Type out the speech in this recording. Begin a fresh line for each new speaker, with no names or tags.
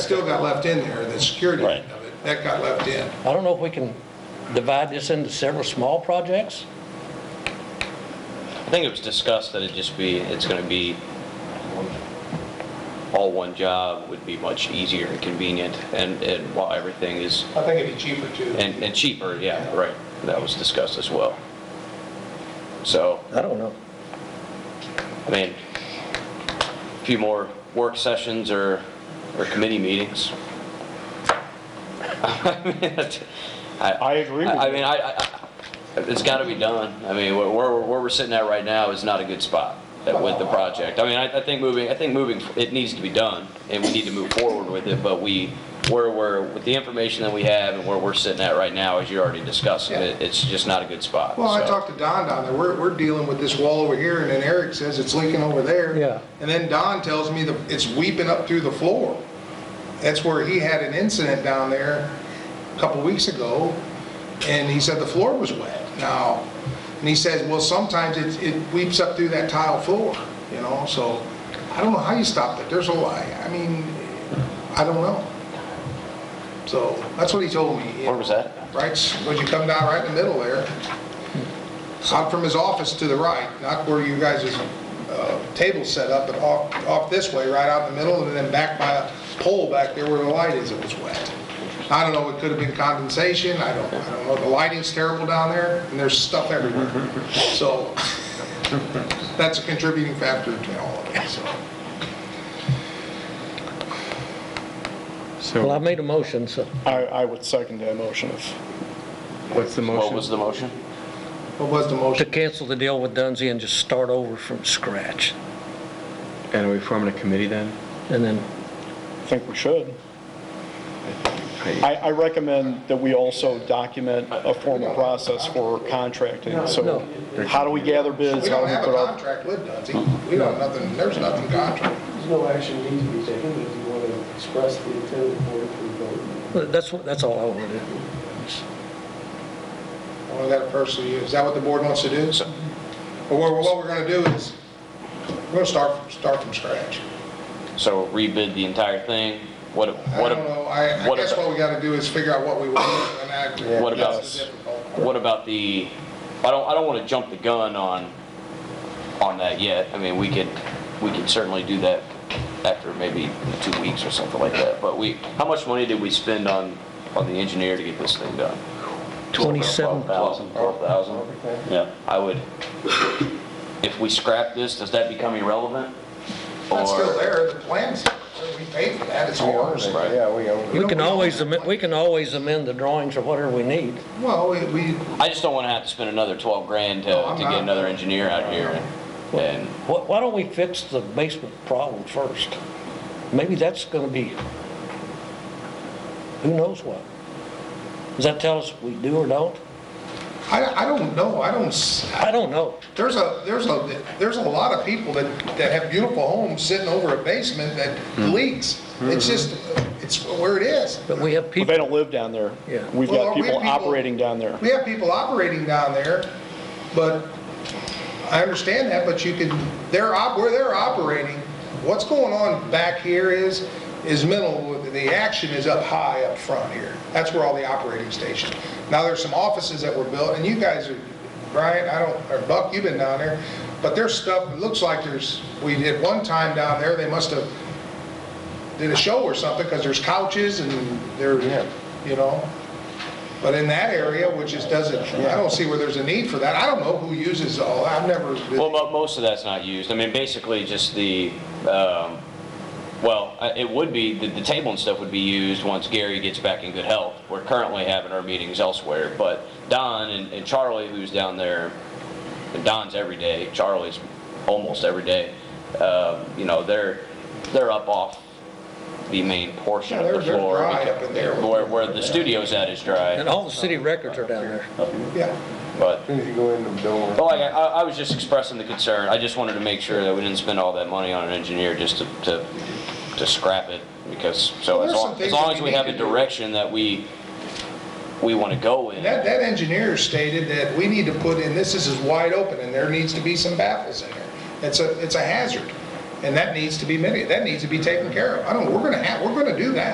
still got left in there, the security
Right.
of it, that got left in.
I don't know if we can divide this into several small projects?
I think it was discussed that it just be, it's gonna be all one job would be much easier and convenient and, and while everything is,
I think it'd be cheaper too.
and, and cheaper, yeah, right. That was discussed as well. So,
I don't know.
I mean, a few more work sessions or, or committee meetings. I,
I agree with
I
you.
mean, I, I, I- it's gotta be done. I mean, where, where where we're sitting at right now is not a good spot at- with the project. I mean, I, I think moving, I think moving, it needs to be done, and we need to move forward with it, but we, where we're, with the information that we have and where we're sitting at right now, as you already discussed, it, it's just not a good spot.
Well, I
so.
talked to Don down there, we're, we're dealing with this wall over here, and then Eric says it's leaking over there.
Yeah.
And then Don tells me that it's weeping up through the floor. That's where he had an incident down there a couple weeks ago, and he said the floor was wet now. And he says, well, sometimes it, it weeps up through that tile floor, you know, so I don't know how you stop that, there's a lie, I mean, I don't know. So, that's what he told me. you
Where was
know.
that?
Right, when you come down right in the middle there, out from his office to the right, not where you guys' uh, table's set up, but off, off this way, right out in the middle, and then back by a pole back there where the light is, it was wet. I don't know, it could have been condensation, I don't, I don't know, the lighting's terrible down there, and there's stuff everywhere. So, that's a contributing factor to all of it, so.
Well, I
So
made a motion, so
I, I would second that motion if,
what's the
What was
motion?
the motion?
What was the
to
motion?
cancel the deal with Dunsey and just start over from scratch.
And are we forming a committee then?
And then,
I think we should.
I-
I, I recommend that we also document a formal process for contracting. So how do we gather bids?
We
How
don't
do we
have a
put out?
contract with Dunsey, we don't, nothing, there's nothing contract.
There's no action needs to be taken, but if you want to express the intent of the board through vote.
that's, what- that's all I want to do.
Only that personally, is that what the board wants to do? But what, what we're gonna do is, we're gonna start, start from scratch.
So rebid the entire thing? What, a-
I
what,
don't know,
a-
I, I
what
guess
about-
what we gotta do is figure out what we want to enact.
What about-
That's the difficult part.
What about the, I don't, I don't want to jump the gun on, on that yet. I mean, we could, we could certainly do that after maybe two weeks or something like that. But we, how much money did we spend on, on the engineer to get this thing done?
27,
Twelve thousand? Yeah. I would, if we scrap this, does that become irrelevant?
It's still
Or-
there, the plans, we paid for that, it's ours.
Right.
we can always, amend- we can always amend the drawings or whatever we need.
Well, we, we,
I just don't want to have to spend another twelve grand to,
No, I'm
to
not.
get another engineer out here and- and.
Why why don't we fix the basement problem first? Maybe that's going to be, who knows what? Does that tell us we do or don't?
I, I don't know, I don't, s-
I don't know.
there's a, there's a, there's a lot of people that, that have beautiful homes sitting over a basement that
Hmm.
leaks. It's just, it's where it is.
But we have
But they
people,
don't live down there.
Yeah.
We've
Well,
got
we have
people
people-
operating down there.
We have people operating down there, but I understand that, but you could, they're, op- where they're operating, what's going on back here is, is minimal. The action is up high up front here. That's where all the operating stations. Now, there's some offices that were built, and you guys are, Brian, I don't, or Buck, you've been down there, but there's stuff, it looks like there's, we did one time down there, they must have did a show or something, because there's couches and there's, you know. But in that area, which is, doesn't, I don't see where there's a need for that. I don't know who uses all, I've never,
Well,
been-
mo- most of that's not used. I mean, basically just the, um, well, I- it would be, the, the table and stuff would be used once Gary gets back in good health. We're currently having our meetings elsewhere, but Don and, and Charlie, who's down there, and Don's every day, Charlie's almost every day, um, you know, they're, they're up off the main portion
Yeah,
of the
they're- they're
floor.
dry
because-
up in there.
Where, where the studio's at is dry,
and all the city records are down there.
yeah.
but.
As soon as you go in the door.
Well, like, Oh, I, I was just expressing the concern, I just wanted to make sure that we didn't spend all that money on an engineer just to, to, to scrap it, because, so
Well,
as
there's
long,
some
as
things
long
that
as
we
we
need
have
to do.
a direction that we, we wanna go in.
That, that engineer stated that we need to put in, this is as wide open, and there needs to be some baffles in there. It's a, it's a hazard, and that needs to be mitigated, that needs to be taken care of. I don't, we're gonna have, we're gonna do that.